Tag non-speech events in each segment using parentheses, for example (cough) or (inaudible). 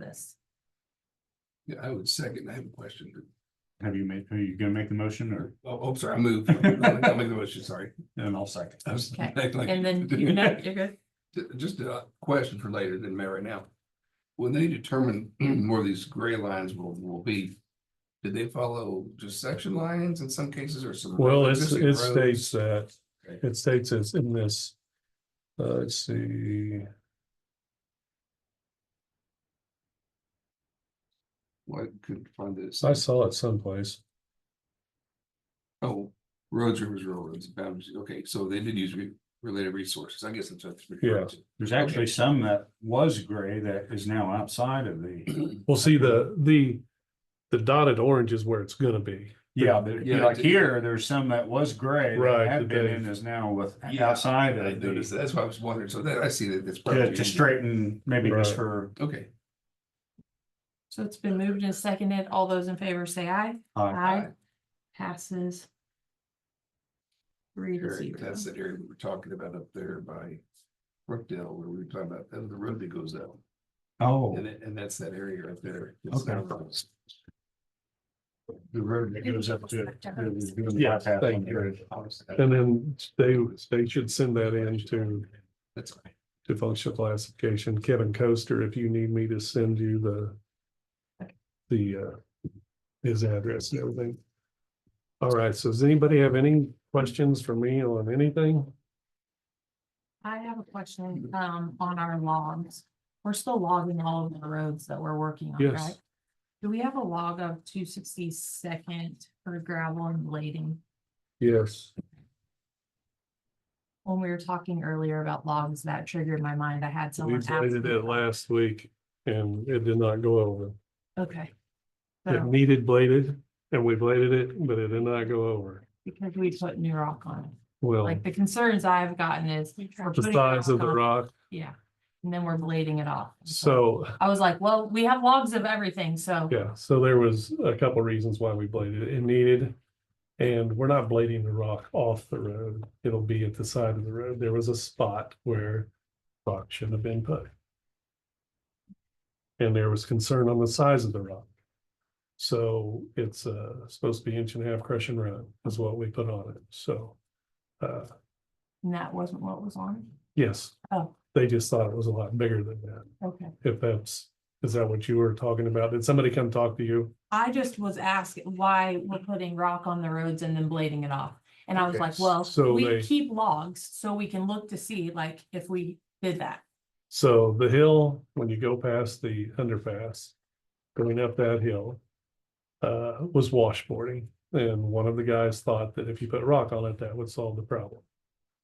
this. Yeah, I would second. I have a question. Have you made, are you gonna make the motion or? Oh, oh, sorry, I moved. I'll make the motion, (laughs) sorry. And I'll second. I was Okay, like- like- (laughs) And then you're not, you're good. Ju- Just a question for later than Mayor right now. When they determine (clears throat) where these gray lines will, will be, did they follow just section lines in some cases or some? Well, it's, existing it roads? states that, Okay. it states it's in this, uh, let's see, Well, I couldn't find this. I saw it someplace. Oh, roads, rivers, railroads, boundaries. Okay, so they did use re- related resources. I guess that's what. it's referring There's actually some that was gray that is now outside of the, to. Well, see, the, the, the dotted orange is where it's gonna be. yeah, but Yeah, like it's- here, there's some that was gray. Right, that Had that been they- in is now with Yeah, outside I of noticed, the, that. that's why I was wondering. So that, I see that it's. to to straighten, maybe just Right. for, Okay. So it's been moved and seconded. All those in favor say aye. uh, Aye. Passes. Three to area, zero. That's that area we were talking about up there by Brookdale, where we were talking about, that was the road that goes out. oh, And it, and that's that area right there. It's Okay. not- the road that goes up to. Yeah, thank you. And then they, they should send that in to, That's fine. to functional classification. Kevin Coaster, if you need me to send you the, the, uh, his address and everything. All right, so does anybody have any questions for me on anything? I have a question, um, on our logs. We're still logging all of the roads that we're working on, Yes. right? Do we have a log of two sixty-second for gravel and blading? Yes. When we were talking earlier about logs, that triggered my mind. I had We someone ask. bladed it last week and it did not go over. Okay. It So, needed bladed and we bladed it, but it did not go over. because we put new rock on it. Well, Like the concerns I've gotten is. we're Um, the putting size of the on- rock, Yeah, and then we're blading it off. so, I was like, well, we have logs of everything, so. yeah, so there was a couple reasons why we bladed it. It needed. And we're not blading the rock off the road. It'll be at the side of the road. There was a spot where rock shouldn't have been put. And there was concern on the size of the rock. So it's uh supposed to be inch and a half crush and run is what we put on it, so. Uh, And that wasn't what was on yes. Oh. They just thought it was a lot bigger than that. it. Okay. If that's, is that what you were talking about? Did somebody come talk to you? I just was asking why we're putting rock on the roads and then blading it off. And I was Okay, like, well, so we they- keep logs so we can look to see like if we did that. So the hill, when you go past the underpass, going up that hill. Uh, was washboarding and one of the guys thought that if you put rock on it, that would solve the problem.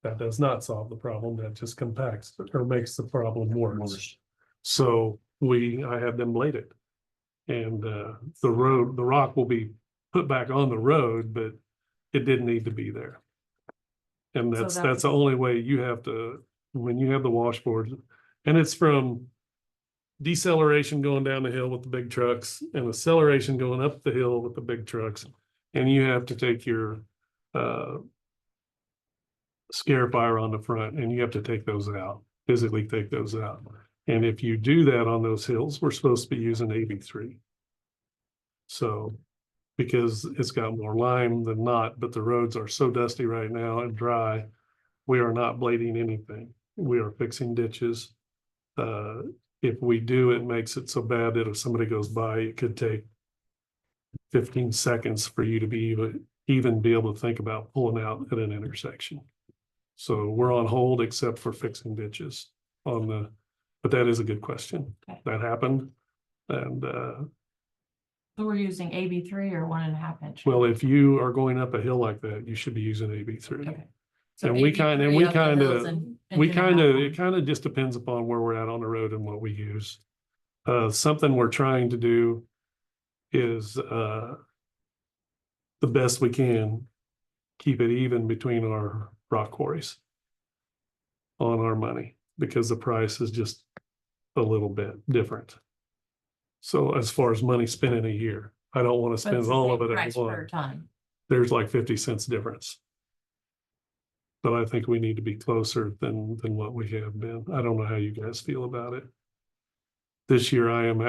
That does not solve the problem. That just compacts or makes the problem worse. So we, I had them blade it. And uh, the road, the rock will be put back on the road, but it didn't need to be there. And So that's, that that's the was- only way you have to, when you have the washboards, and it's from deceleration going down the hill with the big trucks and acceleration going up the hill with the big trucks. And you have to take your uh scare fire on the front and you have to take those out, physically take those out. And if you do that on those hills, we're supposed to be using AB three. So, because it's got more lime than not, but the roads are so dusty right now and dry. We are not blading anything. We are fixing ditches. Uh, if we do, it makes it so bad that if somebody goes by, it could take fifteen seconds for you to be even, even be able to think about pulling out at an intersection. So we're on hold except for fixing ditches on the, but that is a good question. Okay. That happened. And, uh, So we're using AB three or one and a half inch. well, if you are going up a hill like that, you should be using AB three. Okay. So and we AB3 kinda- and we up the kinda- hills and inch We and a half kind of, on. it kind of just depends upon where we're at on the road and what we use. Uh, something we're trying to do is, uh, the best we can, keep it even between our rock quarries on our money, because the price is just a little bit different. So as far as money spent in a year, I don't want to But it's spend the all of same it at price per once Ton. there's like fifty cents difference. But I think we need to be closer than, than what we have been. I don't know how you guys feel about it. This year I am